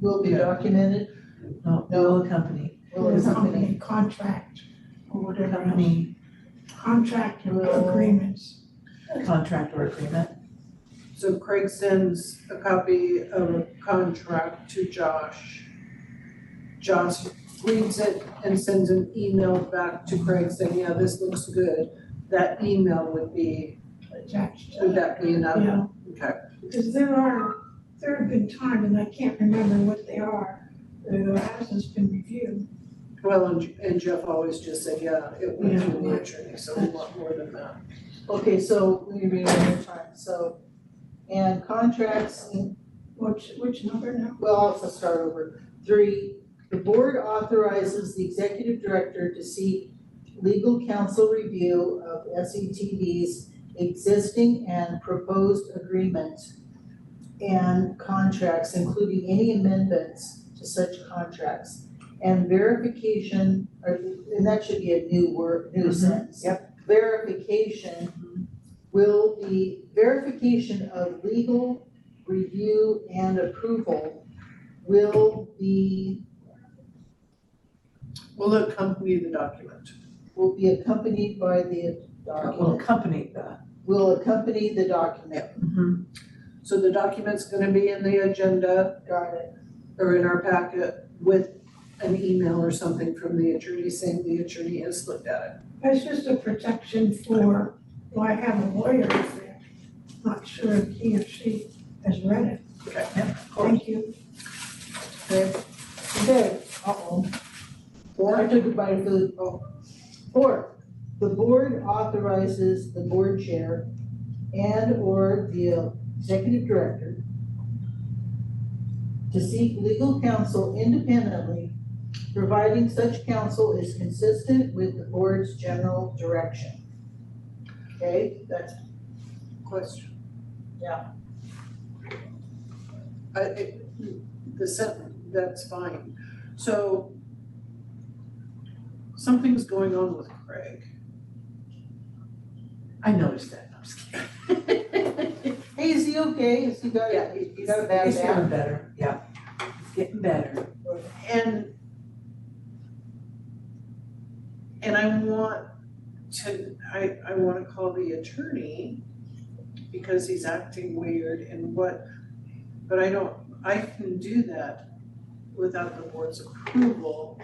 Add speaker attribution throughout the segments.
Speaker 1: will be
Speaker 2: Yeah.
Speaker 1: documented, no, will accompany,
Speaker 3: Or
Speaker 1: Or
Speaker 3: company
Speaker 1: company.
Speaker 3: contract, or whatever, else.
Speaker 1: accompany
Speaker 3: contract or
Speaker 2: Will.
Speaker 3: agreements.
Speaker 1: contract or agreement.
Speaker 2: So Craig sends a copy of a contract to Josh. Josh reads it and sends an email back to Craig saying, yeah, this looks good. That email would be,
Speaker 3: attached to
Speaker 2: would
Speaker 3: that.
Speaker 2: that be enough?
Speaker 3: Yeah,
Speaker 2: Okay,
Speaker 3: because there are, there have been times, and I can't remember what they are, that it hasn't been reviewed.
Speaker 2: well, and and Jeff always just said, yeah, it went through the attorney, so we want more than that.
Speaker 1: Okay, so we read it one more time, so, and contracts,
Speaker 3: Which, which number now?
Speaker 1: well, I'll also start over. Three, the board authorizes the executive director to seek legal counsel review of E SETB's existing and proposed agreement and contracts, including any amendments to such contracts. And verification, or, and that should be a new word,
Speaker 2: Mm-hmm.
Speaker 1: new sentence. Yep. Verification will be, verification of legal review and approval will be,
Speaker 2: Will accompany the document.
Speaker 1: will be accompanied by the
Speaker 4: will
Speaker 1: document,
Speaker 4: accompany the.
Speaker 1: will accompany the document. Mm-hmm.
Speaker 2: So the document's gonna be in the agenda
Speaker 1: Got it.
Speaker 2: or in our packet with an email or something from the attorney saying the attorney has looked at it.
Speaker 3: That's just a protection for, well, I have a lawyer out there, not sure if he or she has read it.
Speaker 2: Okay.
Speaker 3: Thank you.
Speaker 1: Okay, uh-oh. Four, I took a bite of food. Oh. Four, the board authorizes the board chair and/or the executive director to seek legal counsel independently, providing such counsel is consistent with the board's general direction. Okay, that's,
Speaker 2: Question.
Speaker 1: Yeah.
Speaker 2: I, it, the sentence, that's fine. So something's going on with Craig.
Speaker 4: I noticed that, I'm just kidding.
Speaker 1: hey, is he okay? Is he got,
Speaker 2: Yeah,
Speaker 1: he got a bad
Speaker 4: It's
Speaker 1: back?
Speaker 4: getting better, yeah. It's getting better.
Speaker 2: And and I want to, I, I wanna call the attorney because he's acting weird and what, but I don't, I can do that without the board's approval.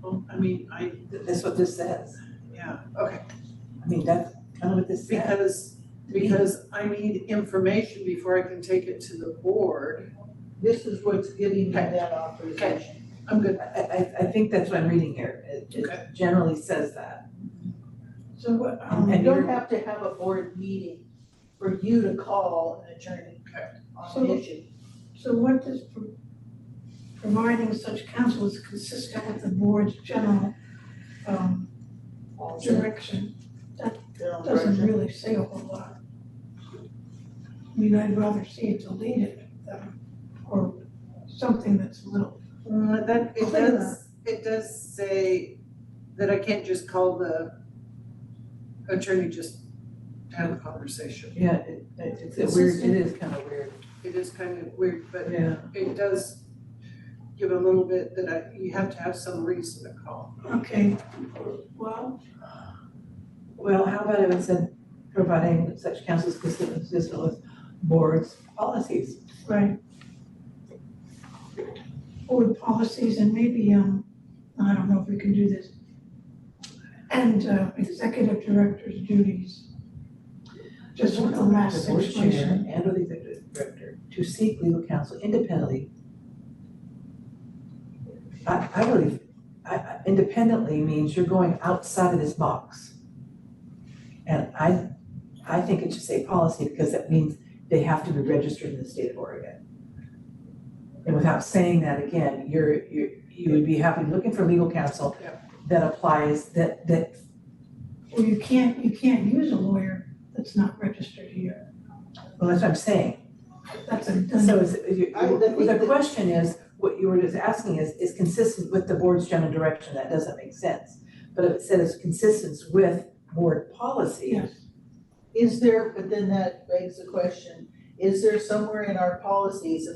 Speaker 2: Well, I mean, I,
Speaker 4: Th- That's what this says.
Speaker 2: yeah, okay,
Speaker 4: I mean, that's kind of what this says.
Speaker 2: because, because I need information before I can take it to the board.
Speaker 1: This is what's giving him that authorization.
Speaker 2: I'm good,
Speaker 4: I, I, I think that's what I'm reading here. It,
Speaker 2: Okay.
Speaker 4: it generally says that.
Speaker 3: So what, um,
Speaker 1: You
Speaker 4: And
Speaker 1: don't
Speaker 4: you're-
Speaker 1: have to have a board meeting for you to call an attorney on
Speaker 3: So-
Speaker 1: an issue.
Speaker 3: So what does pro- providing such counsel is consistent with the board's general um direction?
Speaker 1: General
Speaker 3: Doesn't
Speaker 1: direction.
Speaker 3: really say a whole lot. I mean, I'd rather see it deleted than, or something that's a little,
Speaker 2: Uh, that, it
Speaker 3: Clear.
Speaker 2: does, it does say that I can't just call the attorney, just have a conversation.
Speaker 4: Yeah, it, it- it's a weird, it is kind of weird.
Speaker 2: It is kind of weird, but
Speaker 4: Yeah.
Speaker 2: it does give a little bit that I, you have to have some reason to call.
Speaker 3: okay, well,
Speaker 4: Well, how about if it said providing such counsel is consistent consistent with board's policies?
Speaker 3: right. Board policies and maybe, um, I don't know if we can do this. And uh, executive director's duties. Just with the last
Speaker 4: board chair
Speaker 3: situation.
Speaker 4: And or the executive director to seek legal counsel independently. I, I believe, I- I, independently means you're going outside of this box. And I, I think it should say policy because that means they have to be registered in the state of Oregon. And without saying that again, you're, you're, you would be happy looking for legal counsel
Speaker 2: Yeah.
Speaker 4: that applies, that, that,
Speaker 3: Well, you can't, you can't use a lawyer that's not registered here.
Speaker 4: well, that's what I'm saying.
Speaker 3: That's a, that's
Speaker 4: So is, if you,
Speaker 1: I would think
Speaker 4: the
Speaker 1: that-
Speaker 4: question is, what you were just asking is, is consistent with the board's general direction, that doesn't make sense. But if it says consistent with board policy,
Speaker 3: yes.
Speaker 1: Is there, but then that begs the question, is there somewhere in our policies